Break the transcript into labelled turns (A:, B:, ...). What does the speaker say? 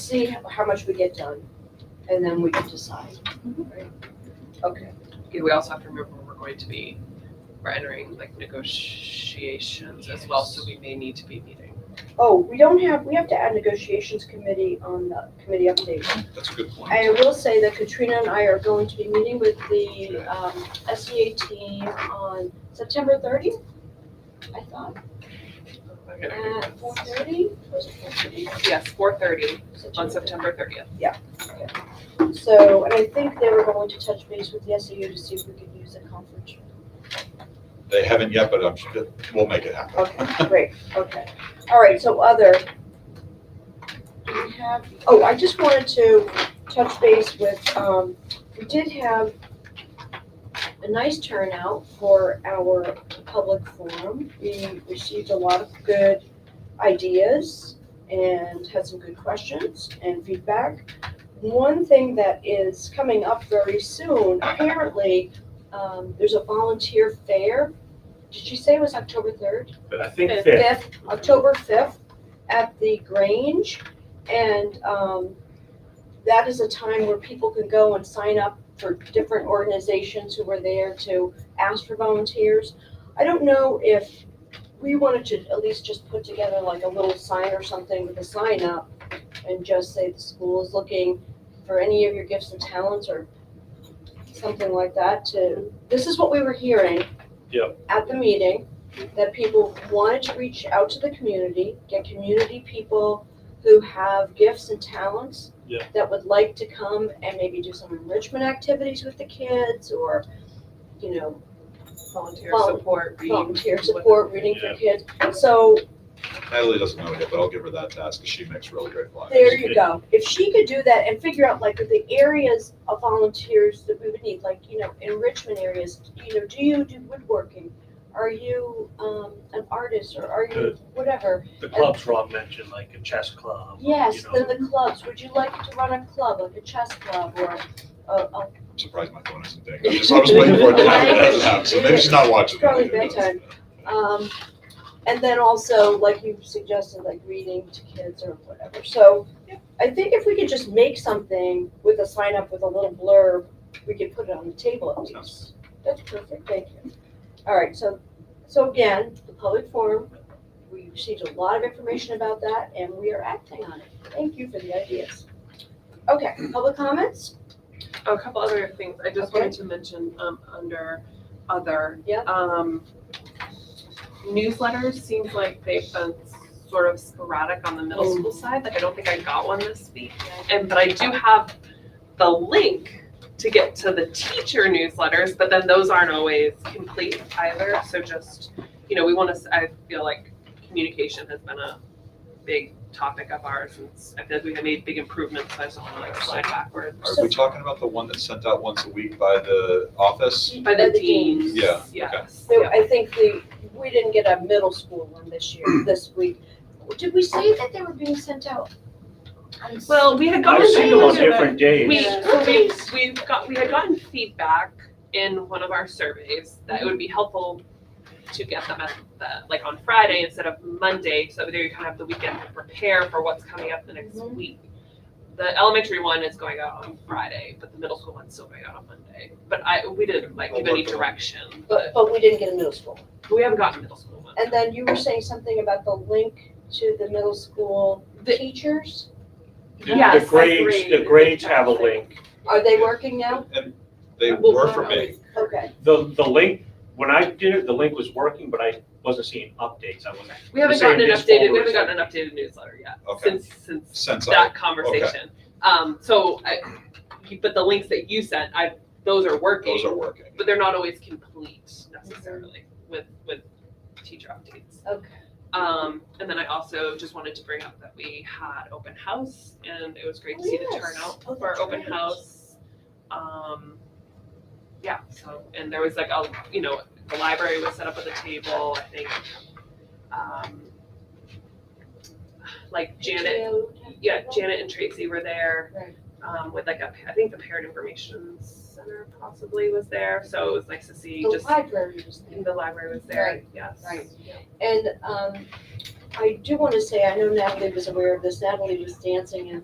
A: see how much we get done, and then we can decide. right? Okay,
B: Yeah, we also have to remember we're going to be, we're entering like negotiations as well, so we may need to be meeting.
A: oh, we don't have, we have to add negotiations committee on the committee update.
C: That's a good point.
A: I will say that Katrina and I are going to be meeting with the um, SEA team on September thirtieth, I thought,
B: Okay.
A: at four thirty, was it four thirty?
B: Yes, four thirty on September thirtieth.
A: So, and I think they were going to touch base with the SAU to see if we could use a conference. room.
C: They haven't yet, but I'm sure, we'll make it happen.
A: Okay, great, okay. All right, so other. Do we have, oh, I just wanted to touch base with, um, we did have a nice turnout for our public forum. We received a lot of good ideas and had some good questions and feedback. One thing that is coming up very soon, apparently, um, there's a volunteer fair. Did she say it was October third?
D: But I think
B: Fifth.
D: fifth,
A: fifth, October fifth, at the Grange. And um, that is a time where people can go and sign up for different organizations who were there to ask for volunteers. I don't know if we wanted to at least just put together like a little sign or something with a sign up and just say the school is looking for any of your gifts and talents or something like that to, this is what we were hearing.
D: Yep.
A: At the meeting that people wanted to reach out to the community, get community people who have gifts and talents
D: Yeah.
A: that would like to come and maybe do some enrichment activities with the kids or, you know,
B: Volunteer
A: Vol-
B: support, read.
A: volunteer
B: what-
A: support, reading for kids. So
C: Natalie doesn't know yet, but I'll give her that task, because she makes really great flyers.
A: there you go. If she could do that and figure out like the areas of volunteers that we would need, like, you know, enrichment areas, you know, do you do woodworking? Are you, um, an artist or are you
D: Good.
A: whatever?
D: the clubs Rob mentioned, like a chess club. you
A: Yes,
D: know.
A: then the clubs, would you like to run a club, like a chess club or a, a,
C: I'm surprised my phone isn't dinging. I was- I was waiting for it to happen, it hasn't happened, so maybe she's not watching.
A: Probably bedtime. um, and then also, like you suggested, like reading to kids or whatever, so. I think if we could just make something with a sign up with a little blurb, we could put it on the table at least. That's perfect, thank you. All right, so, so again, the public forum, we received a lot of information about that and we are acting on it. Thank you for the ideas. Okay, public comments?
B: Oh, A couple other things, I just
A: Okay.
B: wanted to mention, um, under other.
A: Yeah.
B: Um, newsletters, seems like they've been sort of sporadic on the
A: Mm.
B: middle school side, like I don't think I got one this week. And, but I do have the link to get to the teacher newsletters, but then those aren't always complete either, so just, you know, we wanna, s- I feel like communication has been a big topic of ours, and s- I feel like we've made big improvements, so I just don't wanna like slide backwards.
C: Are we talking about the one that's sent out once a week by the office?
B: By the deans.
C: Yeah,
B: Yes.
A: So
B: Yeah.
A: I think the, we didn't get a middle school one this year, this week. Did we say that they were being sent out? on s-
B: Well, we had gotten.
D: I've seen them on
A: Yeah.
D: different days.
B: We,
A: Yeah.
B: we, we got, we had gotten feedback in one of our surveys that it would be helpful to get them at the, like on Friday instead of Monday, so that you kind of have the weekend to prepare for what's coming up the next
A: Mhm.
B: week. The elementary one is going out on Friday, but the middle school one's still going out on Monday. But I, we didn't like give any
C: I'll work on it.
B: direction,
A: But,
B: but
A: but we didn't get a middle school.
B: we haven't gotten middle school one.
A: And then you were saying something about the link to the middle school
B: The-
A: teachers?
D: The-
B: Yes,
D: The
B: I
D: grades,
B: agree.
D: the grades have a link.
A: Are they working now?
C: And they
B: We'll
C: were
B: find
C: for
B: out.
C: me.
A: Okay,
D: The, the link, when I did it, the link was working, but I wasn't seeing updates. I wasn't.
B: We
D: You're
B: haven't
D: saying
B: gotten an
D: this
B: updated, we
D: forward
B: haven't
D: is
B: gotten an updated newsletter yet,
C: Okay.
B: since, since
C: Since I,
B: that conversation. Um, so I, but the links that you sent, I, those are working.
C: those are working.
B: But they're not always complete necessarily with, with teacher updates.
A: okay.
B: Um, and then I also just wanted to bring up that we had open house and it was great to
A: Oh,
B: see the
A: yes.
B: turnout
A: Oh,
B: for our
A: that's
B: open
A: right.
B: house. Um, yeah, so, and there was like a, you know, the library was set up with a table, I think. Um, like Janet yeah, Janet and Tracy were there.
A: Right.
B: Um, with like a, I think the Parent Information Center possibly was there, so it was nice to see
A: The
B: just,
A: library was there.
B: the library was there,
A: Right,
B: yes.
A: Right. And, um, I do want to say, I know Natalie was aware of this, Natalie was dancing and